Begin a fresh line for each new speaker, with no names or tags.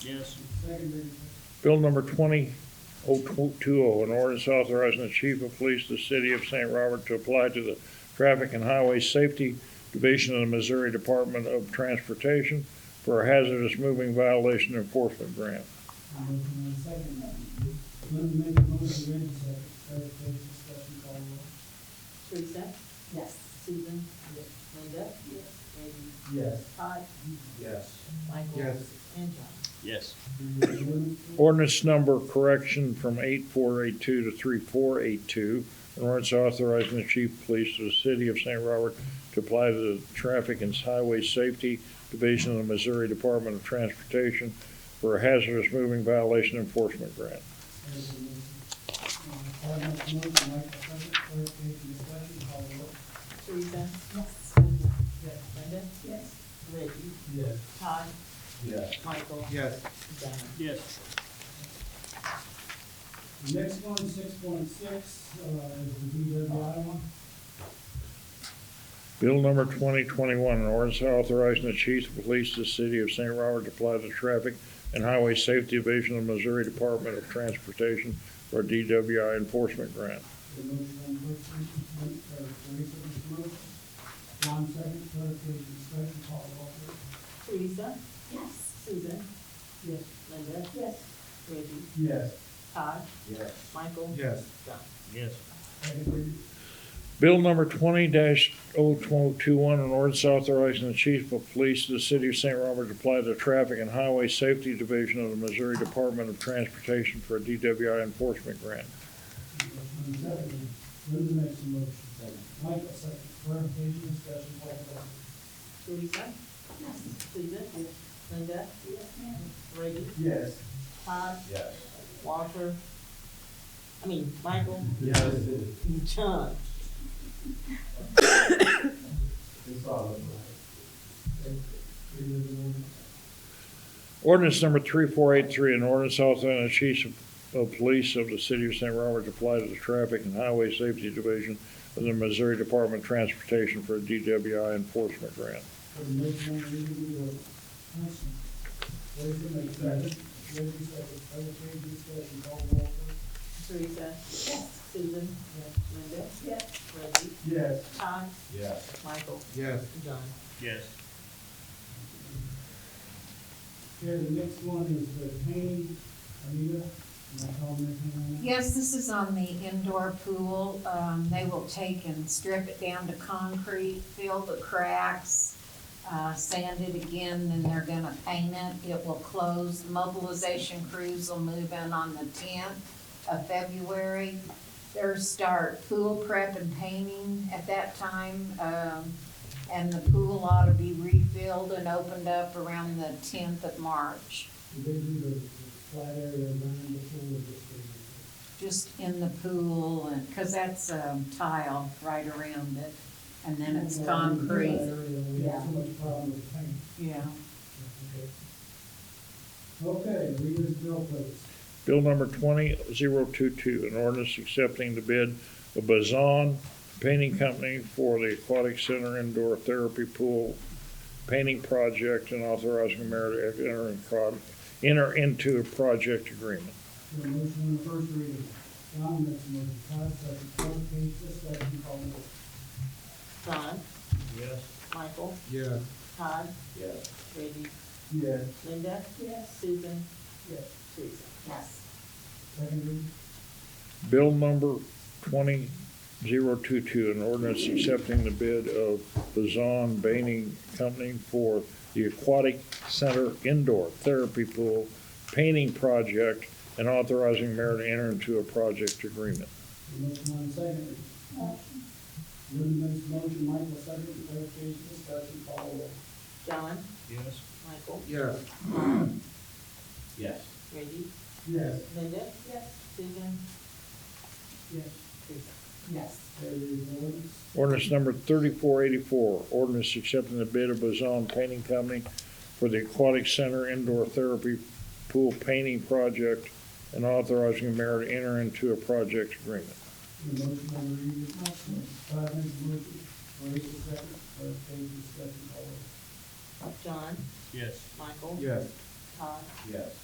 Yes.
Seconded.
Bill number 20020, oh, an ordinance authorizing the chief of police of the city of St. Robert to apply to the Traffic and Highway Safety Division of the Missouri Department of Transportation for a hazardous moving violation enforcement grant.
Motion and second. Linda made the motion, Reggie second. Clerk, please discussion call roll.
Teresa? Yes. Susan? Yes. Linda? Yes. Reggie?
Yes.
Todd?
Yes.
Michael?
Yes.
And John?
Yes.
Ordinance number correction from 8482 to 3482, an ordinance authorizing the chief of police of the city of St. Robert to apply to the Traffic and Highway Safety Division of the Missouri Department of Transportation for a hazardous moving violation enforcement grant.
Todd makes a motion, Mike second. Clerk, please discussion call roll.
Teresa? Yes. Susan? Yes. Linda? Yes. Reggie?
Yes.
Todd?
Yes.
Michael?
Yes.
John?
Yes.
The Next one, six point six, uh, is the DW Iowa.
Bill number 2021, an ordinance authorizing the chief of police of the city of St. Robert to apply to the Traffic and Highway Safety Division of the Missouri Department of Transportation for a DWI enforcement grant.
The motion on first reading, Mike, uh, Teresa makes a motion. John second. Clerk, please discussion call roll.
Teresa? Yes. Susan? Yes. Linda? Yes. Reggie?
Yes.
Todd?
Yes.
Michael?
Yes.
John?
Yes.
Second reading.
Bill number twenty 2021 an ordinance authorizing the chief of police of the city of St. Robert to apply to the Traffic and Highway Safety Division of the Missouri Department of Transportation for a DWI enforcement grant.
Second, Linda makes a motion. Michael second, clarification, discussion, call the vote.
Teresa? Yes. Susan? Yes. Linda? Yes. Reggie?
Yes.
Todd?
Yes.
Walter? I mean, Michael?
Yes.
and John?
It's all right.
Ordinance number three four eight three, an ordinance authorizing the chief of- of police of the city of St. Robert to apply to the Traffic and Highway Safety Division of the Missouri Department of Transportation for a DWI enforcement grant.
For the motion on reading, we will, motion. Linda makes second, Linda second, clarification, discussion, call the vote.
Teresa? Yes. Susan? Yes. Linda? Yes. Reggie?
Yes.
Todd?
Yes.
Michael?
Yes.
and John?
Yes.
Here, the next one is the Kane, Anita, am I calling that Kane?
Yes, this is on the indoor pool. Um, they will take and strip it down to concrete, fill the cracks, uh, sand it again, then they're gonna paint it. It will close. Mobilization crews will move in on the tenth of February. Their start pool prep and painting at that time, um, and the pool ought to be refilled and opened up around the tenth of March,
Did they do the flat area around the pool or just the?
just in the pool and, cause that's, um, tile right around it. And then it's
Flat
concrete,
area, We have so much problem with paint.
yeah.
Okay, reader's bill, please.
Bill number 20022, an ordinance accepting the bid of Bazan Painting Company for the Aquatic Center Indoor Therapy Pool Painting Project and authorizing the mayor to enter in prod- enter into a project agreement.
Got a motion on the first reading. John makes a motion, Todd second, Clerk, please discussion, call the roll.
John?
Yes.
Michael?
Yes.
Todd?
Yes.
Reggie?
Yes.
Linda? Yes. Susan?
Yes.
Teresa?
Yes.
Second reading.
Bill number 20022, an ordinance accepting the bid of Bazan Painting Company for the Aquatic Center Indoor Therapy Pool Painting Project and authorizing mayor to enter into a project agreement.
Got a Motion on the second. Motion. Linda makes a motion, Michael second, Clerk, please discussion, call the roll.
John?
Yes.
Michael?
Yes.
Yes.
Reggie?
Yes.
Linda? Yes. Susan?
Yes.
Teresa?
Yes. There is ordinance.
Ordinance number 3484, ordinance accepting the bid of Bazan Painting Company for the Aquatic Center Indoor Therapy Pool Painting Project and authorizing the mayor to enter into a project agreement.
The motion on the reading. Todd makes a motion, Teresa second, Clerk, please discussion, call the roll.
John?
Yes.
Michael?
Yes.
Todd?
yes.